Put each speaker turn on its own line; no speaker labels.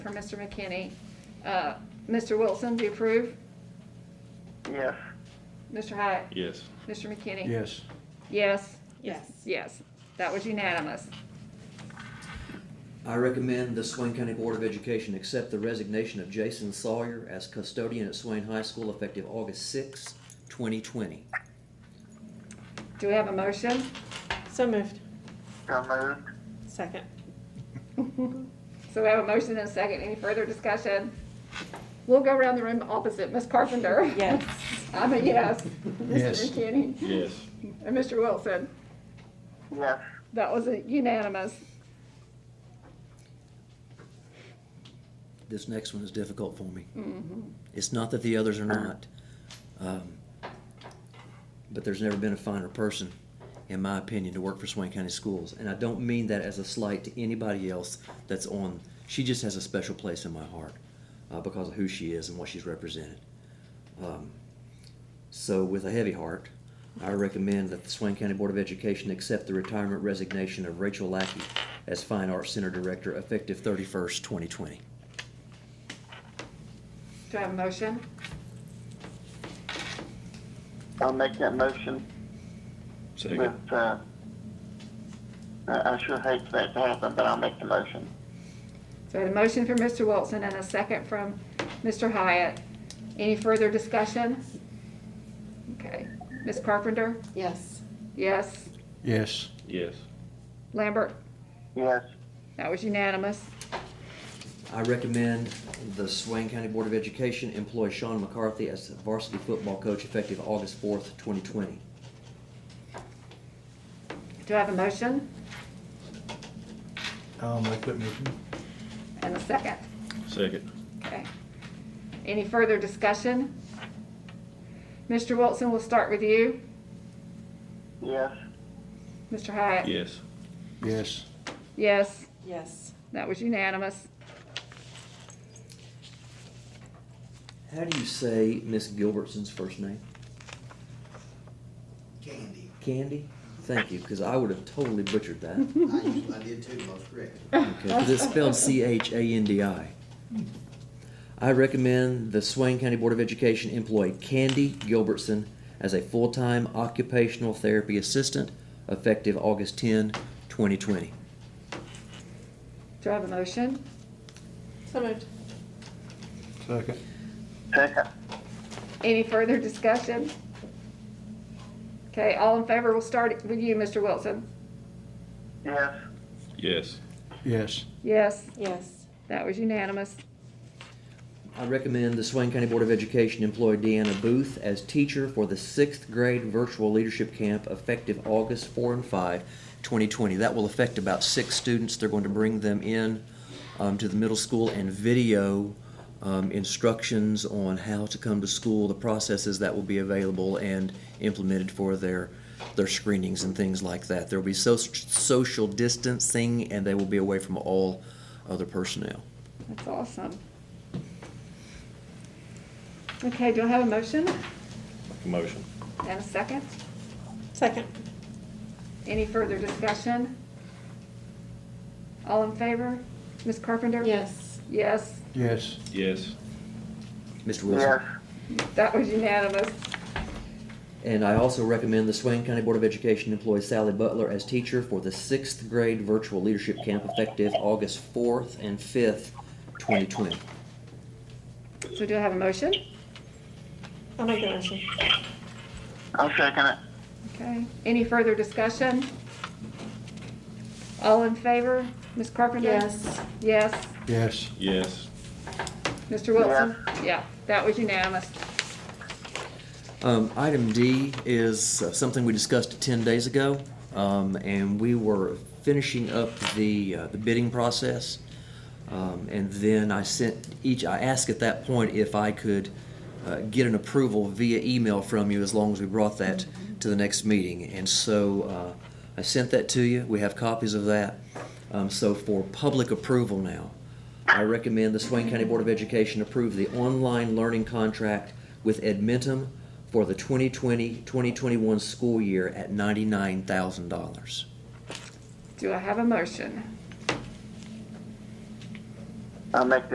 for Mr. McKinney. Uh, Mr. Wilson, do you approve?
Yes.
Mr. Hyatt?
Yes.
Mr. McKinney?
Yes.
Yes,
Yes.
yes, that was unanimous.
I recommend the Swain County Board of Education accept the resignation of Jason Sawyer as custodian at Swain High School effective August sixth, twenty twenty.
Do we have a motion?
So moved.
So moved.
Second.
So we have a motion and a second. Any further discussion? We'll go around the room opposite. Ms. Carpenter?
Yes.
I'm a yes.
Yes.
Mr. McKinney?
Yes.
And Mr. Wilson?
Yes.
That was a unanimous.
This next one is difficult for me. It's not that the others are not, um, but there's never been a finer person, in my opinion, to work for Swain County Schools. And I don't mean that as a slight to anybody else that's on, she just has a special place in my heart uh, because of who she is and what she's represented. Um, So with a heavy heart, I recommend that the Swain County Board of Education accept the retirement resignation of Rachel Lackey as Fine Arts Center Director effective thirty-first, twenty twenty.
Do I have a motion?
I'll make that motion with,
Second.
uh, I I sure hate for that to happen, but I'll make the motion.
So I had a motion from Mr. Wilson and a second from Mr. Hyatt. Any further discussion? Okay. Ms. Carpenter?
Yes.
Yes.
Yes.
Yes.
Lambert?
Yes.
That was unanimous.
I recommend the Swain County Board of Education employ Sean McCarthy as the varsity football coach effective August fourth, twenty twenty.
Do I have a motion
I'll make that motion.
and a second?
Second.
Okay. Any further discussion? Mr. Wilson, we'll start with you.
Yes.
Mr. Hyatt?
Yes.
Yes.
Yes,
Yes.
that was unanimous.
How do you say Miss Gilbertson's first name?
Candy.
Candy? Thank you, because I would have totally butchered that.
I usually, I did too, most correct.
Okay, 'cause it's spelled C-H-A-N-D-I. I recommend the Swain County Board of Education employ Candy Gilbertson as a full-time occupational therapy assistant effective August 10, 2020.
Do I have a motion?
So moved.
Second.
Second.
Any further discussion? Okay, all in favor, we'll start with you, Mr. Wilson.
Yes.
Yes.
Yes.
Yes,
Yes.
that was unanimous.
I recommend the Swain County Board of Education employ Deanna Booth as teacher for the sixth grade virtual leadership camp effective August four and 5, 2020. That will affect about six students. They're going to bring them in um, to the middle school and video um, instructions on how to come to school, the processes that will be available and implemented for their their screenings and things like that. There will be so- social distancing, and they will be away from all other personnel.
That's awesome. Okay, do I have a motion
Motion.
and a second?
Second.
Any further discussion? All in favor? Ms. Carpenter?
Yes.
Yes,
Yes.
Yes.
Mr. Wilson?
Yes.
that was unanimous.
And I also recommend the Swain County Board of Education employ Sally Butler as teacher for the sixth grade virtual leadership camp effective August fourth and fifth, twenty twenty.
So do I have a motion?
I'll make the motion.
I'll second it.
Okay, any further discussion? All in favor? Ms. Carpenter? Yes.
Yes.
Yes.
Mr. Wilson? Yeah, that was unanimous.
Um, item D is uh, something we discussed ten days ago, um, and we were finishing up the, uh, the bidding process. Um, and then I sent each, I asked at that point if I could, uh, get an approval via email from you as long as we brought that to the next meeting. And so, uh, I sent that to you. We have copies of that. Um, so for public approval now, I recommend the Swain County Board of Education approve the online learning contract with Edmentum for the 2020-2021 school year at $99,000.
Do I have a motion?
I'll make